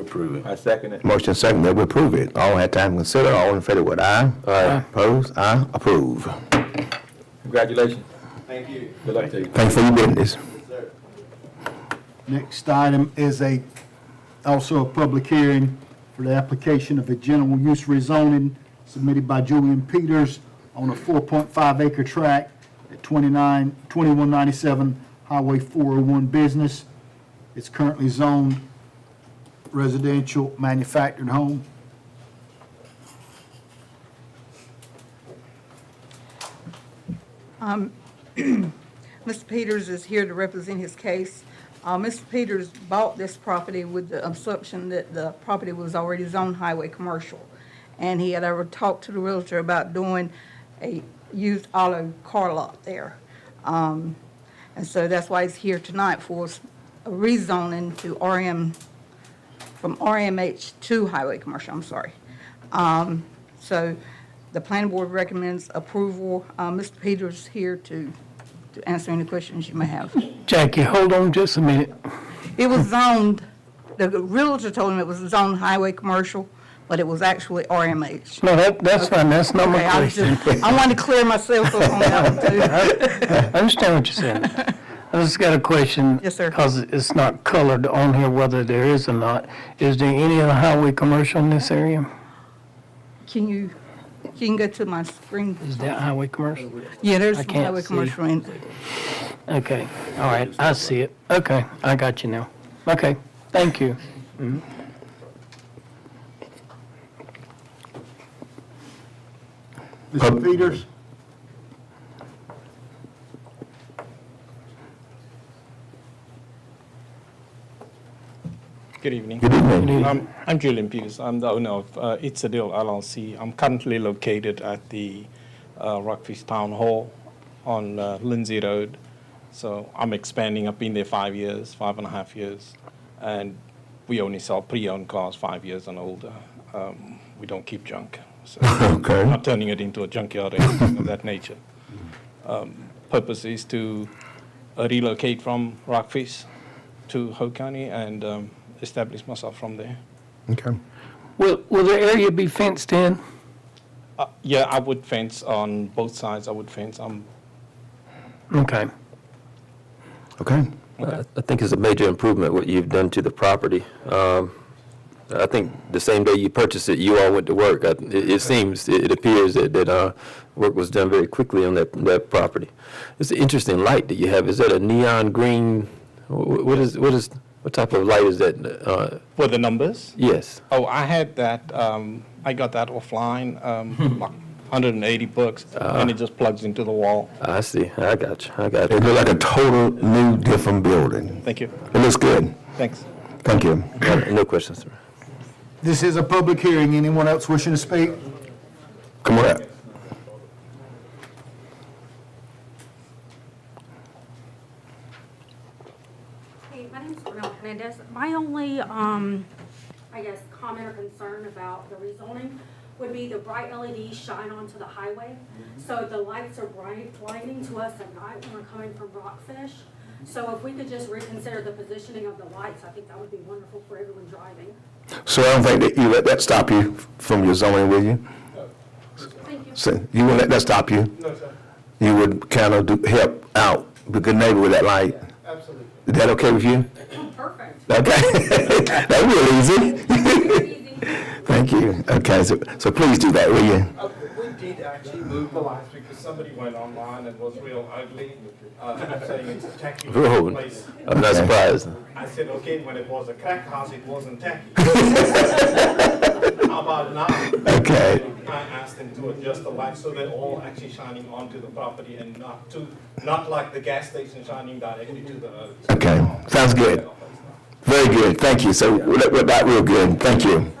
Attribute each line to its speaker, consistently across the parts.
Speaker 1: approve it.
Speaker 2: I second it.
Speaker 3: Motion second that we approve it. All had time to consider, all in favor with aye. Aye. Opposed, aye, approve.
Speaker 2: Congratulations.
Speaker 4: Thank you.
Speaker 2: Good luck to you.
Speaker 3: Thanks for your business.
Speaker 5: Next item is a, also a public hearing for the application of a general use rezoning submitted by Julian Peters on a 4.5 acre tract at 29, 2197 Highway 401 Business. It's currently zoned residential manufactured home.
Speaker 6: Mr. Peters is here to represent his case. Uh, Mr. Peters bought this property with the assumption that the property was already zoned highway commercial. And he had ever talked to the realtor about doing a used auto car lot there. Um, and so that's why he's here tonight for s- a rezoning to RM, from RMH to highway commercial, I'm sorry. Um, so the planning board recommends approval. Uh, Mr. Peters here to, to answer any questions you may have.
Speaker 7: Jackie, hold on just a minute.
Speaker 6: It was zoned, the realtor told him it was zoned highway commercial, but it was actually RMH.
Speaker 7: No, that, that's fine, that's not my
Speaker 6: Okay, I was
Speaker 7: question.
Speaker 6: just, I wanted to clear myself up on that one too.
Speaker 7: I understand what you're saying. I just got a question.
Speaker 6: Yes, sir.
Speaker 7: Because it's not colored on here whether there is or not. Is there any other highway commercial in this area?
Speaker 6: Can you, you can go to my screen?
Speaker 7: Is that highway commercial?
Speaker 6: Yeah, there's
Speaker 7: I
Speaker 6: some
Speaker 7: can't
Speaker 6: highway
Speaker 7: see.
Speaker 6: commercial in.
Speaker 7: Okay, all right, I see it. Okay, I got you now. Okay, thank you.
Speaker 5: Mr. Peters?
Speaker 8: Good evening.
Speaker 3: Good evening.
Speaker 8: Um, I'm Julian Peters. I'm the owner of uh, It's a Deal LLC. I'm currently located at the uh, Rockfish Town Hall on uh, Lindsay Road. So I'm expanding. I've been there five years, five and a half years, and we only sell pre-owned cars five years and older. Um, we don't keep junk. So
Speaker 3: Okay.
Speaker 8: we're not turning it into a junkyard or anything of that nature. Um, purpose is to uh, relocate from Rockfish to Ho County and um, establish myself from there.
Speaker 3: Okay.
Speaker 7: Will, will the area be fenced in?
Speaker 8: Uh, yeah, I would fence on both sides. I would fence. Um,
Speaker 7: Okay,
Speaker 3: Okay.
Speaker 1: I I think it's a major improvement what you've done to the property. Um, I think the same day you purchased it, you all went to work. I- It it seems, it it appears that, that uh, work was done very quickly on that, that property. It's an interesting light that you have. Is that a neon green? Wh- wh- What is, what is, what type of light is that? Uh,
Speaker 8: for the numbers.
Speaker 1: Yes.
Speaker 8: Oh, I had that. Um, I got that offline. Um, like 180 bucks, and it just plugs into the wall.
Speaker 1: I see. I got you. I
Speaker 3: It
Speaker 1: got you.
Speaker 3: look like a total new different building.
Speaker 8: Thank you.
Speaker 3: It looks good.
Speaker 8: Thanks.
Speaker 3: Thank you.
Speaker 1: No questions, sir.
Speaker 5: This is a public hearing. Anyone else wishing to speak?
Speaker 3: Come on up.
Speaker 9: Hey, my name's Renee Hernandez. My only, um, I guess, comment or concern about the rezoning would be the bright LEDs shine onto the highway. So the lights are bright, blinding to us at night when we're coming from Rockfish. So if we could just reconsider the positioning of the lights, I think that would be wonderful for everyone driving.
Speaker 3: So I don't think that you let that stop you from your zoning, will you?
Speaker 9: Thank you.
Speaker 3: So you wouldn't let that stop you? No, sir. You would kind of do, help out the good neighbor with that light? Absolutely. Is that okay with you?
Speaker 9: Perfect.
Speaker 3: Okay. That real easy.
Speaker 9: Easy.
Speaker 3: Thank you. Okay, so, so please do that, will you?
Speaker 10: Uh, We did actually move the lights because somebody went online and was real ugly, uh, saying it's a tacky
Speaker 1: Oh,
Speaker 10: place.
Speaker 1: I'm not surprised.
Speaker 10: I said, okay, when it was a crack house, it wasn't tacky. How about now?
Speaker 3: Okay.
Speaker 10: I asked them to adjust the lights so they're all actually shining onto the property and not to, not like the gas station shining directly to the road.
Speaker 3: Okay, sounds good. Very good, thank you. So that, that- that real good, thank you.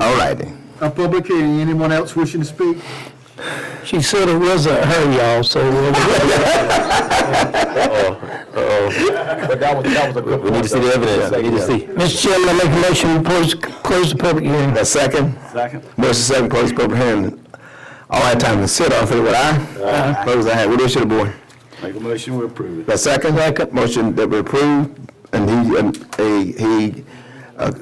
Speaker 3: All righty.
Speaker 5: A public hearing. Anyone else wishing to speak?
Speaker 7: she said it wasn't her, y'all, so uh, we'll-
Speaker 2: But that was, that was a good
Speaker 1: We need to see the evidence. We need to see.
Speaker 7: Mr. Chairman, I make a motion, to close, close the public hearing.
Speaker 3: A second? Second. Motion second, close public hearing. All had time to sit, all in favor, with aye?
Speaker 2: Uh-huh.
Speaker 3: Aye. Close the hand, what issue the board?
Speaker 1: Make a motion, we approve it.
Speaker 3: The second? Second. Motion that we approve, and he, um, he, he